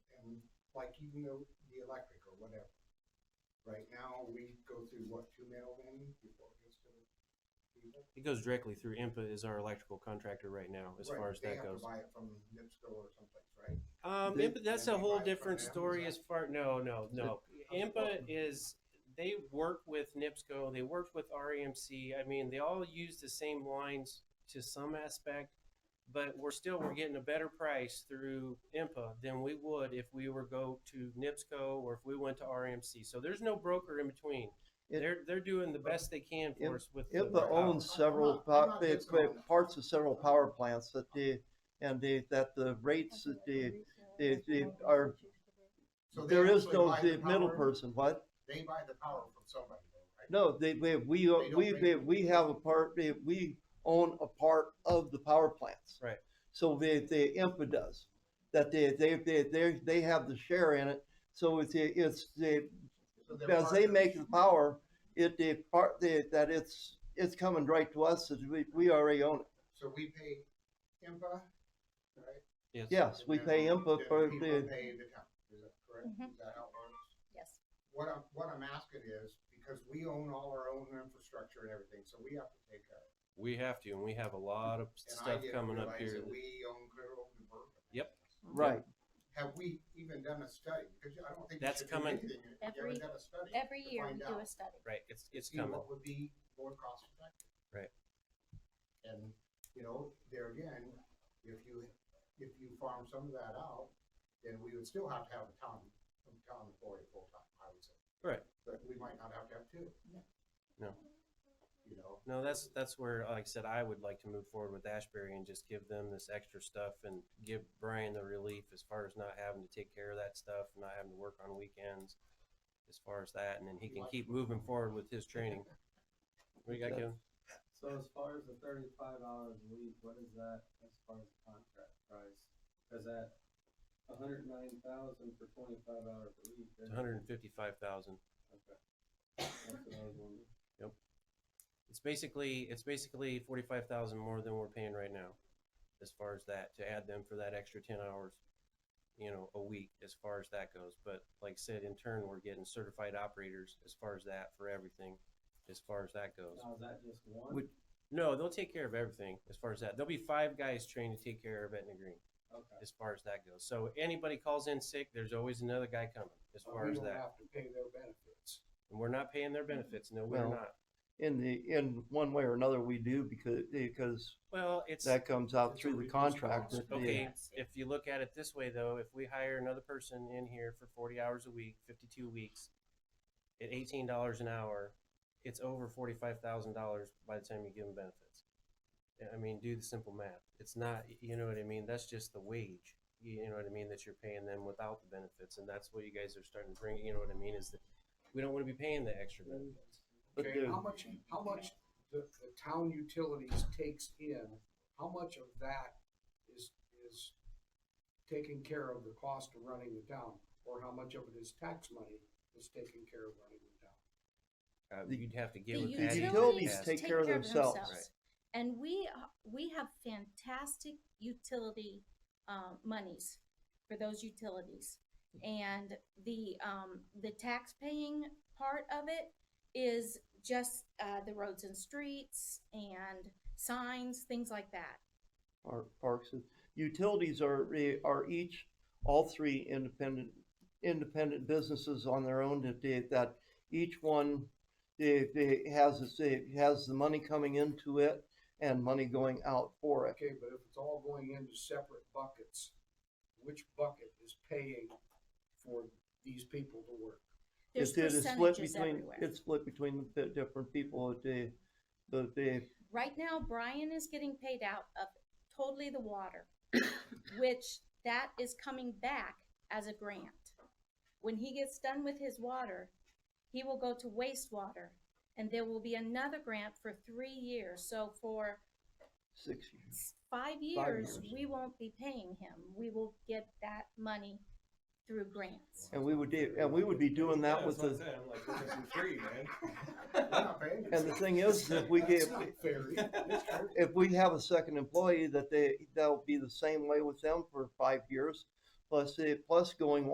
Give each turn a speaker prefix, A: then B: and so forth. A: like even the, the electric or whatever. Right now, we go through what, two mailmen before it gets to the people?
B: It goes directly through IMPA is our electrical contractor right now, as
A: Right,
B: far as
A: they
B: that
A: have to
B: goes.
A: Buy it from NIPSCO or someplace, right?
B: Um,
C: They-
B: IMPA, that's
A: they
B: a
A: buy it
B: whole
A: from
B: different
A: them, is
B: story
A: that-
B: as far, no, no, no.
A: It-
B: IMPA is, they work with NIPSCO, they work with REMC. I mean, they all use the same lines to some aspect, but we're still, we're getting a better price through IMPA than we would if we were go to NIPSCO or if we went to REMC. So there's no broker in between.
C: It-
B: They're, they're doing the best they can for us with. the
C: IMPA
B: workout.
C: owns several,
A: I'm not- I'm
C: po-
A: not
C: they-
A: just going-
C: they- parts of several power plants that the, and the, that the rates that the, the, the, are,
A: So they
C: there is
A: actually
C: no
A: buy
C: the middle
A: power-
C: person, what?
A: They buy the power from somebody though, right?
C: No, they, we, we,
A: don't
C: we,
A: rate
C: we-
A: it.
C: we have a part, we- we own a part of the power plants.
B: Right.
C: So they, the IMPA does, that they, they, they, they, they have the share in it, so it's, it's, the
A: So they're
C: as they
A: partners.
C: make the power, it, the part, the, that it's, it's coming right to us, as we, we already own it.
A: So we pay IMPA, right?
C: Yes, we
A: And
C: pay
A: then
C: input for
A: people
C: the,
A: Pay the town, is that correct?
D: Mhm.
A: Is that how it works?
D: Yes.
A: What I'm, what I'm asking is, because we own all our own infrastructure and everything, so we have to take a.
B: We have to, and we have a lot of
A: and I
B: stuff
A: didn't
B: coming up
A: realize
B: here.
A: that We own clear over to Berkeley.
B: Yep.
C: right,
A: Have we even done a study? Because I don't think. we
B: That's
A: should do
B: coming.
A: anything if You
D: Every-
A: haven't done a study.
D: Every
A: to
D: year we
A: find
D: do a
A: out,
D: study.
B: Right, it's, it's
A: See
B: coming.
A: what would be more cost effective.
B: Right.
A: And, you know, there again, if you, if you farm some of that out, then we would still have to have a town, a town employee full-time, I would say.
B: Right.
A: But we might not have to have two.
B: No.
A: You know,
B: No, that's, that's where, like I said, I would like to move forward with Ashbury and just give them this extra stuff and give Brian the relief as far as not having to take care of that stuff, not having to work on weekends. As far as that, and then he can keep moving forward with his training. What you got, Kevin?
E: So as far as the thirty-five hours a week, what is that as far as contract price? Cause at a hundred and nine thousand for twenty-five hours a week.
B: It's hundred and fifty-five thousand.
E: Okay. That's what I was wondering.
B: It's basically, it's basically forty-five thousand more than we're paying right now. As far as that, to add them for that extra ten hours, you know, a week, as far as that goes. But like I said, in turn, we're getting certified operators as far as that for everything, as far as that goes.
E: Now, Oh, is that just one?
C: Would-
B: No, they'll take care of everything as far as that. There'll be five guys trained to take care of Etna Green
E: Okay.
B: as far as that goes. So anybody calls in sick, there's always another guy coming as
A: but
B: far
A: we
B: as
A: don't
B: that.
A: have to pay their benefits.
B: And we're not paying their benefits. No, we're
C: No.
B: not.
C: in the, in one way or another, we do because, because
B: Well, it's
C: that comes out
A: It's a
C: through the
A: reduced
C: contract.
A: cost.
C: that the-
B: okay. If you look at it this way, though, if we hire another person in here for 40 hours a week, 52 weeks, at $18 an hour, it's over $45,000 by the time you give them benefits. I mean, do the simple math. It's not, you know what I mean? That's just the wage. You know what I mean? That you're paying them without the benefits. And that's what you guys are starting to bring, you know what I mean? Is that we don't want to be paying the extra benefits.
C: But
F: Okay,
C: the-
F: how much, how much the, the town utilities takes in, how much of that is, is taking care of the cost of running the town? Or how much of it is tax money that's taking care of running the town?
B: Uh,
C: The-
B: you'd have to get
D: The
B: with Patty.
D: utilities
C: Yes.
D: take care of
B: Right.
D: themselves. And we, are- we have fantastic utility, um, monies for those utilities. And the, um, the tax paying part of it is just, uh, the roads and streets and signs, things like that.
C: Our parks, and- utilities are, eh, are each, all three independent, independent businesses on their own that they, that each one, they, they has, its- it has the money coming into it and money going out for it.
F: Okay, but if it's all going into separate buckets, which bucket is paying for these people to work?
D: There's
C: It's- it is split
D: percentages
C: between-
D: everywhere.
C: It's split between the di- different people, the, the, the,
D: Right now, Brian is getting paid out of totally the water, which that is coming back as a grant. When he gets done with his water, he will go to wastewater and there will be another grant for three years. So for
C: six years.
D: s- five years,
C: years.
D: we won't be paying him. We will get that money through grants.
C: And we would do, and we would be doing that with the,
A: We're not paying
C: and the thing is that we
A: That's
C: get,
A: not fair either.
C: if we have a second employee, that they, that'll be the same way with them for five years. Plus, they, plus going